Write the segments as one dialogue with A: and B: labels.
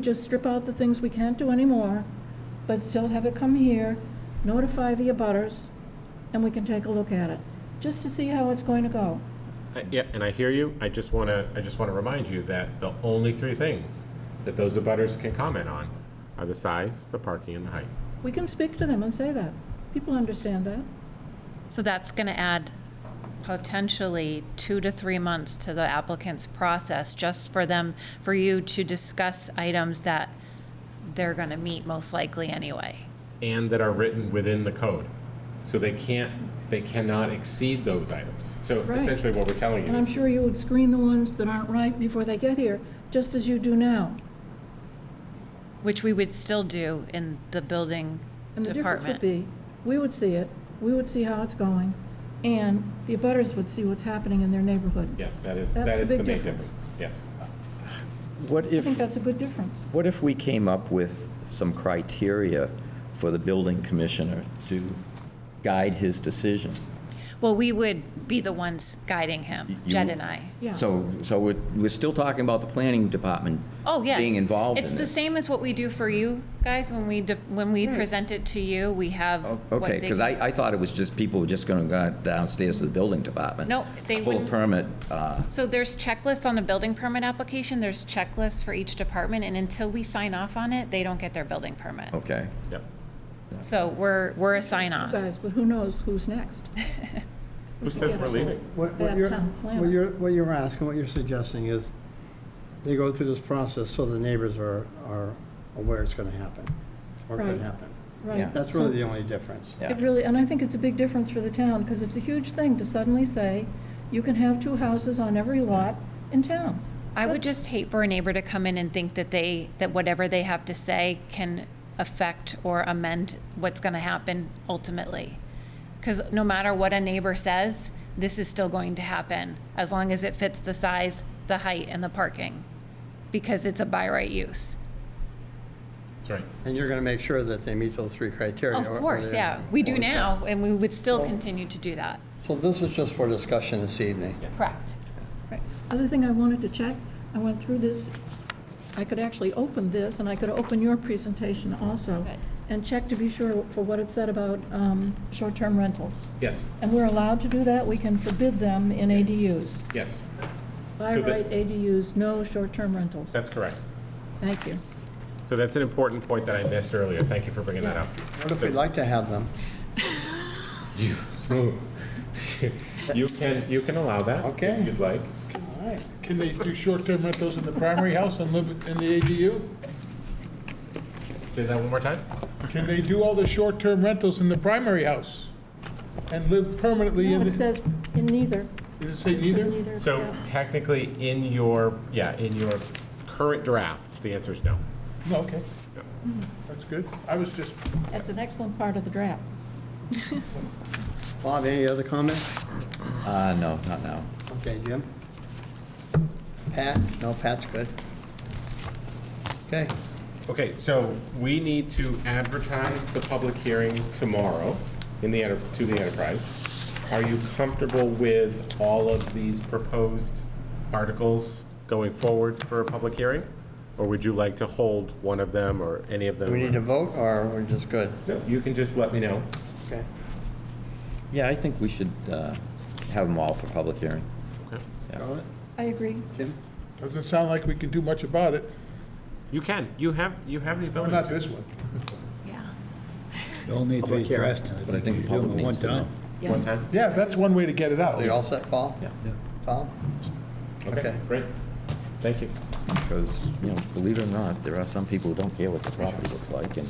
A: Just strip out the things we can't do anymore, but still have it come here, notify the abutters, and we can take a look at it, just to see how it's going to go.
B: I- Yeah, and I hear you. I just want to, I just want to remind you that the only three things that those abutters can comment on are the size, the parking, and the height.
A: We can speak to them and say that. People understand that.
C: So that's going to add potentially two to three months to the applicant's process, just for them, for you to discuss items that they're going to meet most likely anyway.
B: And that are written within the code. So they can't, they cannot exceed those items. So
A: Right.
B: essentially what we're telling you
A: And I'm
B: is,
A: sure you would screen the ones that aren't right before they get here, just as you do now.
C: Which we would still do in the building
A: And the difference would
C: department.
A: be, we would see it, we would see how it's going, and the abutters would see what's happening in their neighborhood.
B: yes, that is,
A: That's
B: that
A: the
B: is the
A: big
B: main
A: difference.
B: difference. Yes.
D: What
A: I think
D: if,
A: that's a good difference.
D: what if we came up with some criteria for the building commissioner to guide his decision?
C: Well, we would be the ones guiding him,
D: You-
C: Jed and I.
A: Yeah.
D: So, so we're, we're still talking about the planning department.
C: Oh, yes.
D: Being involved in
C: It's the
D: this.
C: same as what we do for you guys, when we, de- when we
A: Right.
C: present it to you, we have what
D: Oh, Okay,
C: they
D: because
C: can-
D: I, I thought it was just, people were just going to go downstairs to the building department.
C: No, they
D: Pull a
C: wouldn't.
D: permit, uh,
C: So there's checklists on the building permit application, there's checklists for each department, and until we sign off on it, they don't get their building permit.
D: okay.
B: Yep.
C: So we're, we're a sign
A: You
C: off.
A: Guys, but who knows who's next?
B: Who says we're leaving?
E: What
A: Bad
E: what you're,
A: town planner.
E: what you're, what you're asking, what you're suggesting is they go through this process so the neighbors are, are aware it's gonna happen, or
A: Right.
E: could happen.
A: Right.
E: That's
A: So-
E: really the only difference.
D: Yeah.
A: It really, and I think it's a big difference for the town, because it's a huge thing to suddenly say, you can have two houses on every lot in town.
C: I would just hate for a neighbor to come in and think that they, that whatever they have to say can affect or amend what's gonna happen ultimately. Because no matter what a neighbor says, this is still going to happen, as long as it fits the size, the height, and the parking, because it's a by right use.
B: That's right.
E: And you're gonna make sure that they meet those three criteria.
C: Of
E: or- or
C: course,
E: they-
C: yeah. We do
E: or-
C: now, and we would still continue to do that.
E: So this is just for discussion this evening.
C: Correct.
A: Right. Other thing I wanted to check, I went through this, I could actually open this, and I could open your presentation also,
C: Good.
A: and check to be sure for what it said about um, short-term rentals.
B: Yes,
A: And we're allowed to do that, we can forbid them in ADUs.
B: yes,
A: By
B: So that-
A: right ADUs, no short-term rentals.
B: that's correct.
A: Thank you.
B: So that's an important point that I missed earlier. Thank you for bringing that up.
E: What if we'd like to have them?
B: You, you can, you can allow that. if
E: Okay.
B: You'd like.
E: All right.
F: Can they do short-term rentals in the primary house and live in the ADU?
B: Say that one more time?
F: Can they do all the short-term rentals in the primary house and live permanently
A: No,
F: in the,
A: it says in neither.
F: does it say neither?
A: Neither,
B: So
A: yeah.
B: technically, in your, yeah, in your current draft, the answer is no.
F: No, okay. That's good. I was just,
A: That's an excellent part of the draft.
E: Bob, any other comments?
D: Uh, no, not now.
E: Okay, Jim? Pat? No, Pat's good. Okay,
B: Okay, so we need to advertise the public hearing tomorrow in the, enter- to the enterprise. Are you comfortable with all of these proposed articles going forward for a public hearing? Or would you like to hold one of them or any of them?
E: do we need to vote, or we're just good?
B: No, You can just let me know.
E: Okay.
D: Yeah, I think we should uh, have them all for public hearing.
B: Okay.
E: Charlotte?
A: I agree.
E: Jim?
F: doesn't sound like we can do much about it.
B: You can, you have, you have the
F: Well,
B: ability.
F: not
B: to.
F: this one.
C: Yeah.
G: They'll need to be addressed. and
D: But I think the
G: you do
D: public
G: it
D: needs
G: one
D: to know.
G: time.
B: One time?
F: Yeah, that's one way to get it out.
E: Are you all set, Paul?
D: Yeah.
E: Tom?
B: Okay,
E: Okay.
B: great. Thank you.
D: Because, you know, believe it or not, there are some people who don't care what the property looks like and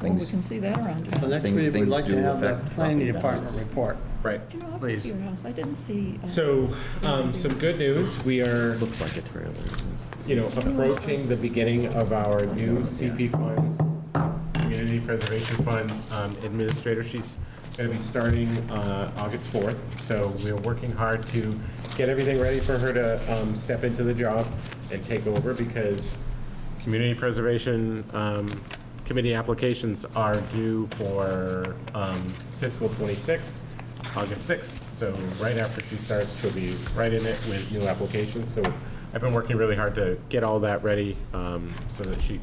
A: Well, we
D: things.
A: can see that around.
E: So next
D: Thing-
E: week, we'd
D: things
E: like to
D: do
E: have the
D: affect
E: planning
D: property
E: department
D: values.
E: report.
B: Right.
A: Do you know, I went
E: Please.
A: to your house, I didn't see. uh,
B: So, um, some good news, we are,
D: Looks like a trailer. It's-
B: you know, approaching the beginning of our new CP fund, Community Preservation Fund um, Administrator. She's going to be starting uh, August 4th, so we're working hard to get everything ready for her to um, step into the job and take over because Community Preservation um, Committee applications are due for um, fiscal '26, August 6th. So right after she starts, she'll be right in it with new applications. So I've been working really hard to get all that ready um, so that she